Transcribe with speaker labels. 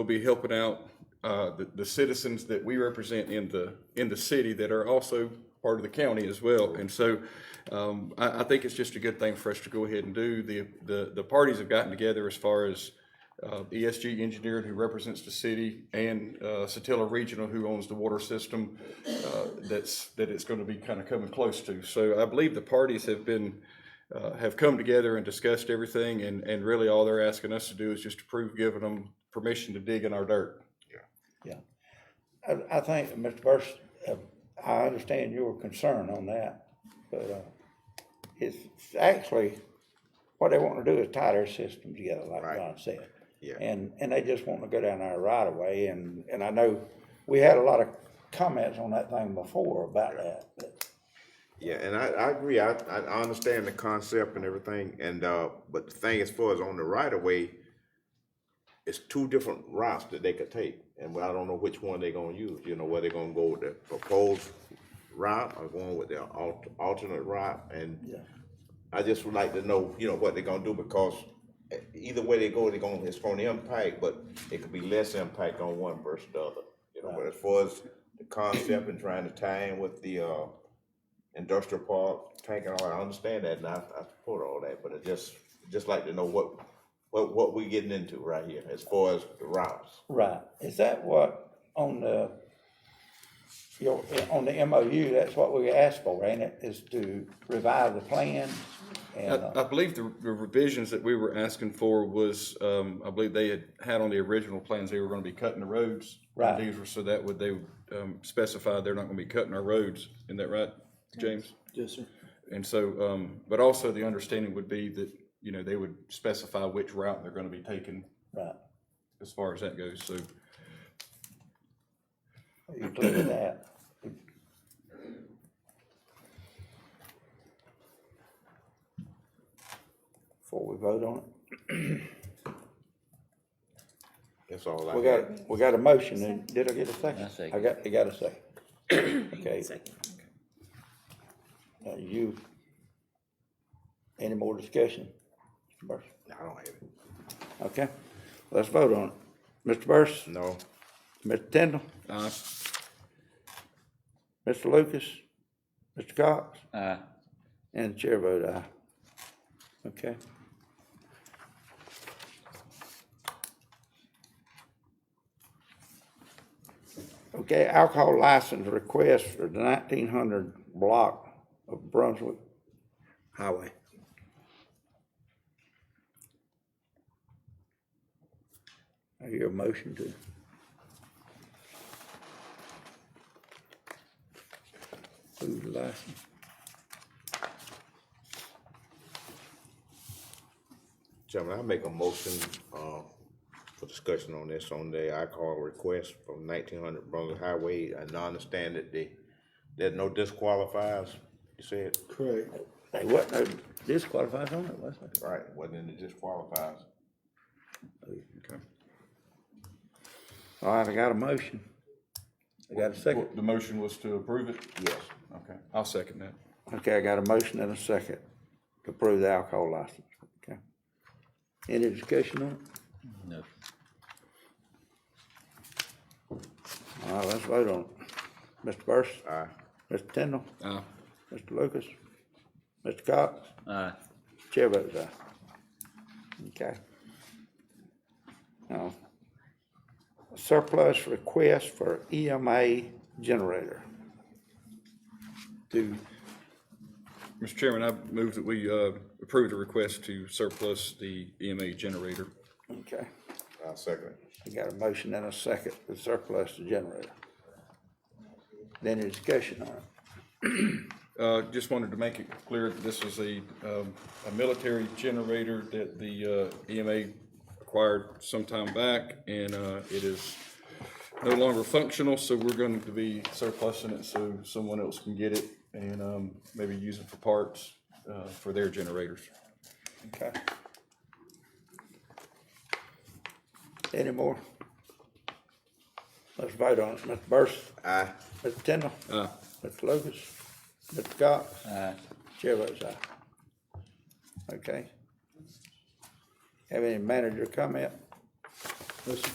Speaker 1: will be helping out uh, the, the citizens that we represent in the, in the city that are also part of the county as well. And so um, I, I think it's just a good thing for us to go ahead and do. The, the, the parties have gotten together as far as uh, ESG Engineering, who represents the city, and uh, Satilla Regional, who owns the water system, uh, that's, that it's going to be kind of coming close to. So I believe the parties have been, uh, have come together and discussed everything, and, and really all they're asking us to do is just approve giving them permission to dig in our dirt.
Speaker 2: I, I think, Mr. Burris, uh, I understand your concern on that, but, uh, it's actually, what they want to do is tie their system together, like
Speaker 3: Right.
Speaker 2: John said.
Speaker 3: Yeah.
Speaker 2: And, and they just want to go down our right of way, and, and I know, we had a lot of comments on that thing before about that, but
Speaker 3: Yeah, and I, I agree. I, I I understand the concept and everything, and, uh, but the thing as far as on the right of way, it's two different routes that they could take, and I don't know which one they are gonna use, you know, whether they are gonna go with the proposed route or going with the al- alternate route, and
Speaker 2: Yeah.
Speaker 3: I just would like to know, you know, what they're gonna do, because e- either way they go, they're gonna, it's gonna impact, but it could be less impact on one versus the other. You know, but as far as the concept and trying to tie in with the, uh, industrial park, tank and all that, I understand that, and I, I support all that, but I just, just like to know what, what, what we getting into right here, as far as the routes.
Speaker 2: Right, is that what, on the, your, on the MOU, that's what we asked for, ain't it, is to revive the plan? And, uh,
Speaker 1: I, I believe the the revisions that we were asking for was, um, I believe they had had on the original plans, they were gonna be cutting the roads.
Speaker 2: Right.
Speaker 1: These were, so that would, they um, specified they're not gonna be cutting our roads, isn't that right, James?
Speaker 4: Yes, sir.
Speaker 1: And so, um, but also the understanding would be that, you know, they would specify which route they're gonna be taking
Speaker 2: right,
Speaker 1: as far as that goes, so.
Speaker 2: you clear with that? Before we vote on it,
Speaker 3: That's all I
Speaker 2: we
Speaker 3: got.
Speaker 2: got, we got a motion, and did I get a second?
Speaker 5: I second.
Speaker 2: I got, I got a second. Okay,
Speaker 6: Second.
Speaker 2: now you, any more discussion? Mr. Burris?
Speaker 3: I don't have it.
Speaker 2: Okay, let's vote on it. Mr. Burris?
Speaker 3: No.
Speaker 2: Mr. Tindall?
Speaker 1: Aye.
Speaker 2: Mr. Lucas? Mr. Cox?
Speaker 5: Aye.
Speaker 2: And the chair vote aye. Okay. Okay, alcohol license request for the nineteen hundred block of Brunswick Highway. I hear a motion to, approve the license.
Speaker 3: Chairman, I make a motion, uh, for discussion on this, on the alcohol request from nineteen hundred Brunswick Highway, and I understand that they, that no disqualifies, you said?
Speaker 4: Correct.
Speaker 2: They wasn't no disqualified on it, was there?
Speaker 3: Right, wasn't in the disqualifies.
Speaker 1: Okay.
Speaker 2: All right, I got a motion. I got a second.
Speaker 1: The motion was to approve it?
Speaker 3: Yes.
Speaker 1: Okay, I'll second that.
Speaker 2: Okay, I got a motion and a second to approve the alcohol license. Okay. Any discussion on it?
Speaker 5: No.
Speaker 2: All right, let's vote on it. Mr. Burris?
Speaker 3: Aye.
Speaker 2: Mr. Tindall?
Speaker 1: Aye.
Speaker 2: Mr. Lucas? Mr. Cox?
Speaker 5: Aye.
Speaker 2: Chair votes aye. Okay. Now, surplus request for EMA generator. To,
Speaker 1: Mr. Chairman, I move that we uh, approve the request to surplus the EMA generator.
Speaker 2: okay.
Speaker 3: I second it.
Speaker 2: We got a motion and a second to surplus the generator. Then a discussion on it.
Speaker 1: Uh, Just wanted to make it clear that this is a, um, a military generator that the uh, EMA acquired some time back, and uh, it is no longer functional, so we're going to be surplusing it so someone else can get it and um, maybe use it for parts uh, for their generators.
Speaker 2: Okay. Any more? Let's vote on it. Mr. Burris?
Speaker 3: Aye.
Speaker 2: Mr. Tindall?
Speaker 1: Aye.
Speaker 2: Mr. Lucas? Mr. Cox?
Speaker 5: Aye.
Speaker 2: Chair votes aye. Okay. Have any manager comment?
Speaker 4: Yes, sir.